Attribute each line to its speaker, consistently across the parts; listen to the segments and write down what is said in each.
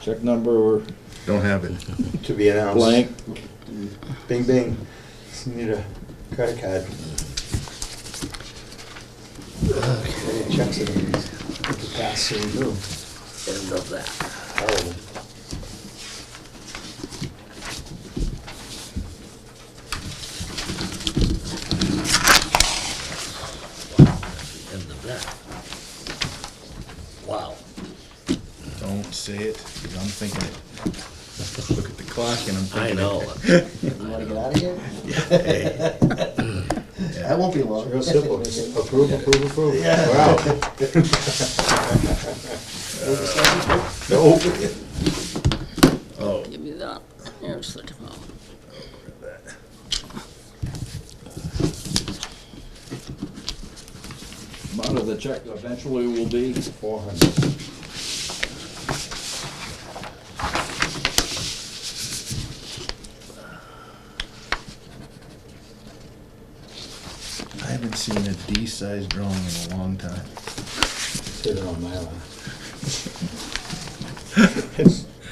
Speaker 1: check number
Speaker 2: Don't have it.
Speaker 3: To be announced.
Speaker 1: blank.
Speaker 3: Bing, bing. Just Need a credit card. Okay, checks it in. Pass soon, too.
Speaker 4: End of that.
Speaker 3: Horrible.
Speaker 4: End of that. Wow.
Speaker 2: Don't say it, 'cause I'm thinking it. Look at the clock and I'm
Speaker 4: I
Speaker 2: thinking it.
Speaker 4: know.
Speaker 5: You wanna get out of here?
Speaker 4: Hey,
Speaker 5: That won't be long.
Speaker 3: It's real simple. Just Approve, approve, approve. We're out. Nope.
Speaker 2: Oh,
Speaker 4: Give me that. Here's the tomorrow.
Speaker 1: Amount of the check eventually will be,
Speaker 3: Four hundred.
Speaker 2: I haven't seen a D-sized drawing in a long time.
Speaker 3: Sitting on my lap.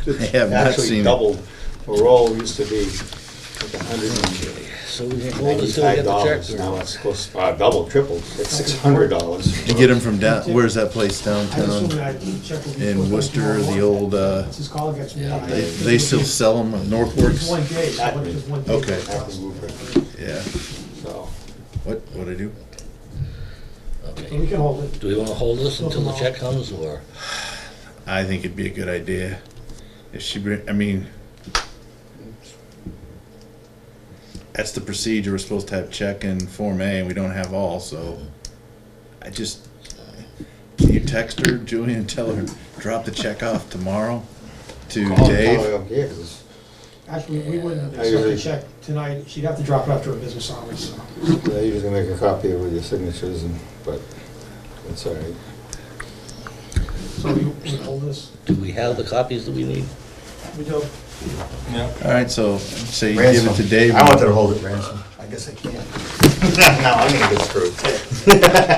Speaker 2: I have not
Speaker 3: Actually
Speaker 2: seen it.
Speaker 3: doubled. A roll used to be like a hundred and
Speaker 4: So we can hold it till we
Speaker 3: ninety-five
Speaker 4: get the
Speaker 3: dollars.
Speaker 4: checks.
Speaker 3: Now it's close, uh, double, triple. It's six hundred dollars.
Speaker 2: To get them from down, where's that place
Speaker 6: I assume
Speaker 2: downtown?
Speaker 6: that check will be put
Speaker 2: In
Speaker 6: back
Speaker 2: Worcester,
Speaker 6: tomorrow.
Speaker 2: the old, uh,
Speaker 6: This is call against me.
Speaker 2: they, they still sell them at
Speaker 6: It's one
Speaker 2: Northworks?
Speaker 6: day, so what does one day?
Speaker 2: Okay.
Speaker 3: Back
Speaker 6: cost?
Speaker 3: in Woburn,
Speaker 2: Yeah.
Speaker 3: so.
Speaker 2: What, what'd I do?
Speaker 6: So we
Speaker 4: Okay.
Speaker 6: can hold it.
Speaker 4: Do we wanna hold this until the check comes or?
Speaker 2: I think it'd be a good idea. If she, bring- I mean, that's the procedure. We're supposed to have check and Form A, and we don't have all, so I just, can you text her, Julie, and tell her, drop the check off tomorrow to
Speaker 3: Call and tell her
Speaker 2: Dave?
Speaker 3: I'm here, Oh, 'cause
Speaker 6: Actually, we wouldn't
Speaker 3: I
Speaker 6: accept
Speaker 3: agree.
Speaker 6: the check tonight. She'd have to drop it after her business hours, so.
Speaker 3: Yeah, you just gonna make a copy with your signatures and, but it's all right.
Speaker 6: So we we hold this.
Speaker 4: Do we have the copies that we need?
Speaker 6: We do.
Speaker 2: All right, so, say you give it to
Speaker 3: Ransom.
Speaker 2: Dave.
Speaker 3: I wanted to hold it ransom. I guess I can't. No, I'm gonna get screwed.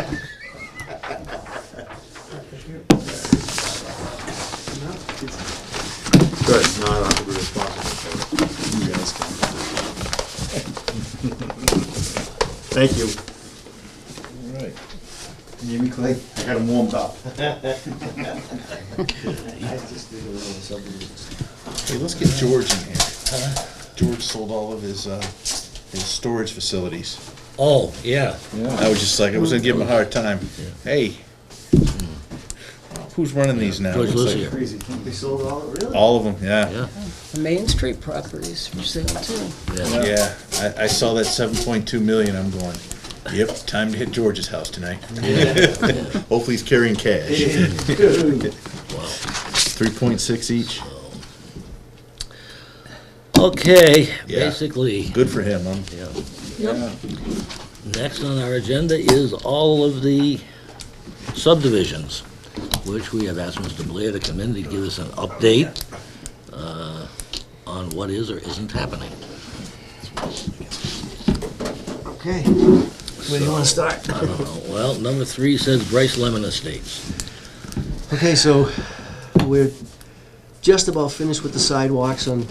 Speaker 3: Good, no, I don't have to be responsible for it. You guys can. Thank you.
Speaker 2: All right.
Speaker 5: Jimmy Clay, I got him warmed up. I just did a little something.
Speaker 2: Hey, let's get George in here. George sold all of his, uh, his storage facilities.
Speaker 4: Oh, yeah.
Speaker 2: I
Speaker 1: yeah.
Speaker 2: was just like, I was gonna give him a hard time. Hey, who's running these now?
Speaker 4: George
Speaker 2: Looks like-
Speaker 4: Lucia.
Speaker 5: Crazy, they sold all, really?
Speaker 2: All of them, yeah.
Speaker 4: Yeah.
Speaker 7: Main Street properties for sale too.
Speaker 4: Yeah.
Speaker 2: Yeah, I, I saw that seven point two million, I'm going, yep, time to hit George's house tonight. Hopefully he's carrying cash. Three point six each,
Speaker 4: Okay,
Speaker 2: Yeah.
Speaker 4: basically,
Speaker 2: good for him, I'm,
Speaker 4: yeah.
Speaker 1: Yeah.
Speaker 4: Next on our agenda is all of the subdivisions, which we have asked Mr. Blair to come in to give us an update uh, on what is or isn't happening.
Speaker 5: Okay.
Speaker 4: Where do you want to start? I don't know. Uh, Well, number three says Bryce Lemon Estates.
Speaker 5: Okay, so we're just about finished with the sidewalks on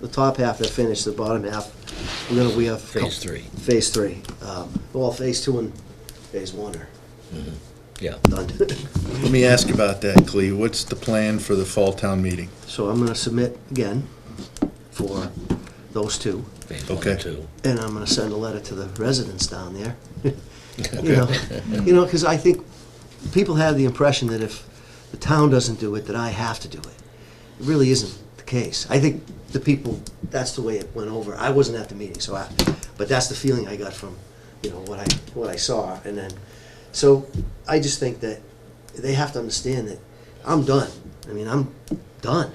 Speaker 5: the top half, they're finished, the bottom half, we're gonna, we have.
Speaker 4: Phase three.
Speaker 5: Phase three, um, well, phase two and phase one are
Speaker 4: Yeah.
Speaker 5: done.
Speaker 2: let me ask about that, Cleve, what's the plan for the fall town meeting?
Speaker 5: So I'm gonna submit again for those two.
Speaker 4: Phase one
Speaker 2: Okay.
Speaker 4: and two.
Speaker 5: and I'm gonna send a letter to the residents down there. You know, you know, because I think people have the impression that if the town doesn't do it, that I have to do it. It really isn't the case. I think the people, that's the way it went over. I wasn't at the meeting, so I, but that's the feeling I got from, you know, what I, what I saw. And then, so I just think that they have to understand that I'm done. I mean, I'm done.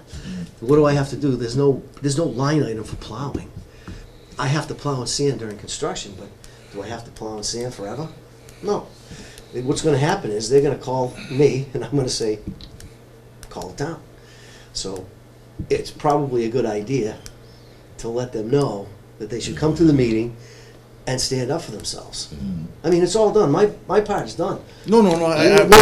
Speaker 5: What do I have to do? There's no, there's no line item for plowing. I have to plow and sand during construction, but do I have to plow and sand forever? No. What's gonna happen is they're gonna call me and I'm gonna say, call it down. So it's probably a good idea to let them know that they should come to the meeting and stand up for themselves. I mean, it's all done. My, my part is done.
Speaker 2: Mm-hmm. No, no, no, I, I,
Speaker 5: No,